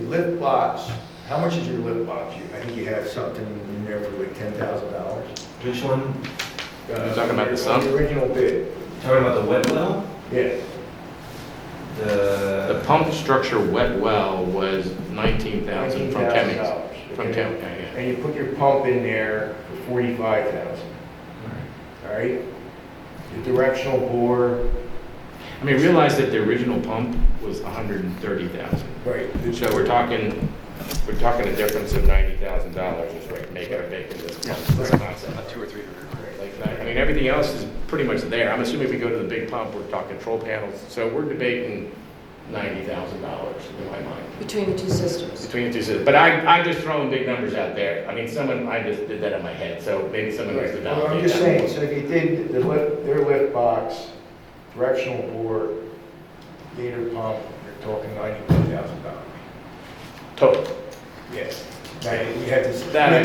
lit lots, how much is your lit lots? You- I think you had something in there for like ten thousand dollars. Which one? talking about the sum? Original bid, Talking about the wet well? yeah. The The, pump structure wet well was nineteen thousand from Kemet. $19,000, From okay? Kemet, yeah. And you put your pump in there for forty-five thousand, all right? The directional bore, I mean, realize that the original pump was a hundred and thirty thousand. right, So we're talking, we're talking a difference of ninety thousand dollars is like making a big in this pump, this concept. two or three hundred. Like, that- I mean, everything else is pretty much there. I'm assuming if we go to the big pump, we're talking control panels. So we're debating ninety thousand dollars in my mind. between the two systems. between the two systems. But I, I just throwing big numbers out there. I mean, someone, I just did that in my head, so maybe someone needs to Right, well, validate that. I'm just saying, so if you did the lift, their lift box, directional bore, gator pump, you're talking ninety-one thousand dollars. Total. Yes. Now, you had to. That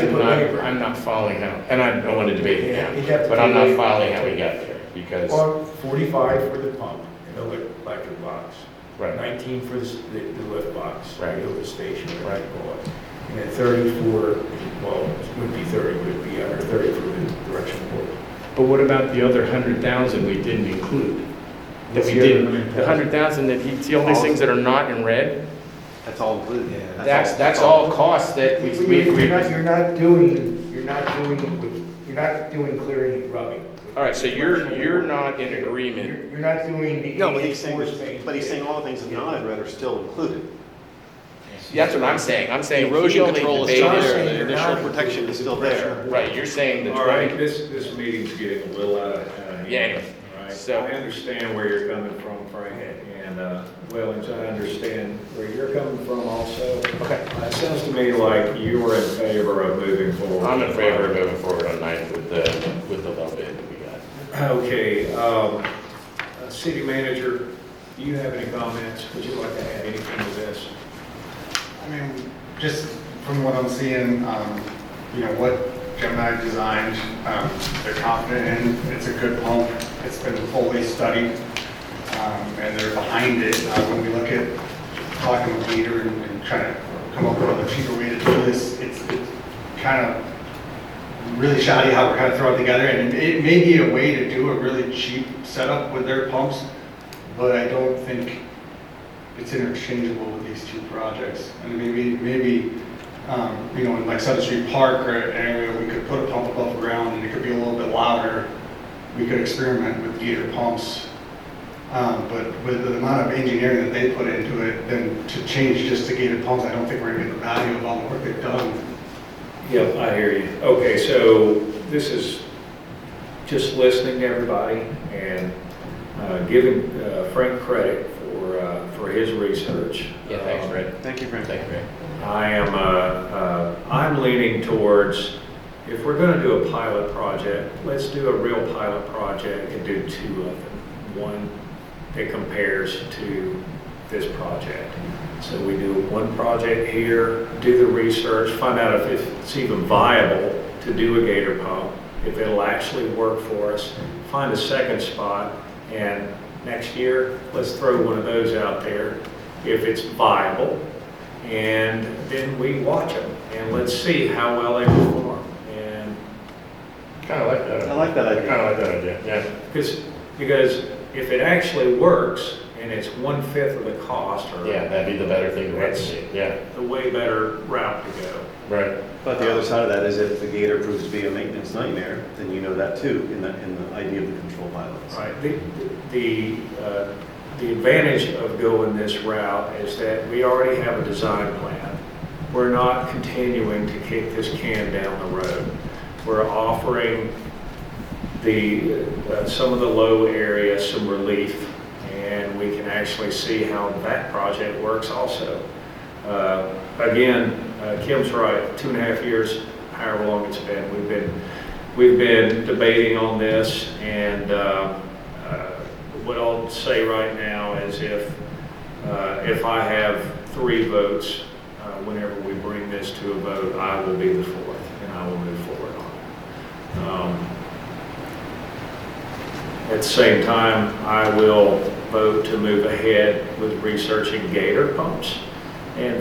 you had to I'm put not, labor. I'm not following how, and I don't want to debate it Yeah, now, you'd have to but I'm put not labor. following how we got there, because, Well, Forty-five for the pump and the lift, electric box. right. Nineteen for the, s- the the lift box. Right. The lift station, whatever you call it. And then thirty for, well, it wouldn't be thirty, would it be under thirty for the directional bore? But what about the other hundred thousand we didn't include? That we didn't, the hundred thousand that he, see all these things that are not in red? That's all included, yeah. That's, that's all costs that we, You're we, we. not, you're not doing, you're not doing, with- you're not doing clearing and rubbing. All right, so you're, you're not in agreement. You're you're not doing the. No, but he's saying, 84 space. but he's saying all the things that not in red are still included. That's what I'm saying. I'm saying. he Erosion only control is debated- still John's there, saying the your initial, natural protection is still there. Right, you're saying the All right, twenty, this, this meeting's getting a little out of hand. Yeah, anyway, All right. so- I understand where you're coming from, Frank, and, uh, Wellings, I understand where you're coming from also. Okay. Uh, It sounds to me like you were in favor of moving forward. I'm in favor of moving forward on nine with the, with the low bid that we got. Okay, um, uh, city manager, do you have any comments? Would you like to add anything to this? I mean, just from what I'm seeing, um, you know, what Gemini designed, um, they're confident in, it's a good pump, it's been fully studied, um, and they're behind it. Uh, when we look at talking with Peter and, and trying to come up with a cheaper way to do this, it's, it's kind of really shoddy how we're kind of throwing it together, and it may be a way to do a really cheap setup with their pumps, but I don't think it's interchangeable with these two projects. And maybe, maybe, um, you know, in like Sutter Street Park or an area, we could put a pump above ground and it could be a little bit louder. We could experiment with gator pumps. Um, but with the amount of engineering that they put into it, then to change just to gator pumps, I don't think we're gonna get the value of all the work they've done. Yep, I hear you. Okay, so this is just listening to everybody and uh, giving uh, Frank credit for, uh, for his research. Um, Yeah, thanks, Red. Thank you, Brent. Thank you, Red. I am, uh, uh, I'm leaning towards, if we're going to do a pilot project, let's do a real pilot project and do two of them. One that compares to this project. So we do one project here, do the research, find out if it's even viable to do a gator pump, if it'll actually work for us, find a second spot, and next year, let's throw one of those out there if it's viable, and then we watch them, and let's see how well they perform. And, Kinda like that. I like that idea. Kinda like that idea, yeah. because, because if it actually works, and it's one-fifth of the cost, or Yeah, that'd be the better thing to That's- recommend, yeah, the way better route to go. right. But the other side of that is if the gator proves to be a maintenance nightmare, then you know that too, in the, in the idea of the control pilots. Right, the, the, uh, the advantage of going this route is that we already have a design plan. We're not continuing to kick this can down the road. We're offering the, uh, some of the low areas some relief, and we can actually see how that project works also. Uh, Again, uh, Kim's right, two and a half years, however long it's been, we've been, we've been debating on this, and uh, uh, what I'll say right now is if, uh, if I have three votes, uh, whenever we bring this to a vote, I will be the fourth, and I will move forward on it. Um, at the same time, I will vote to move ahead with researching gator pumps and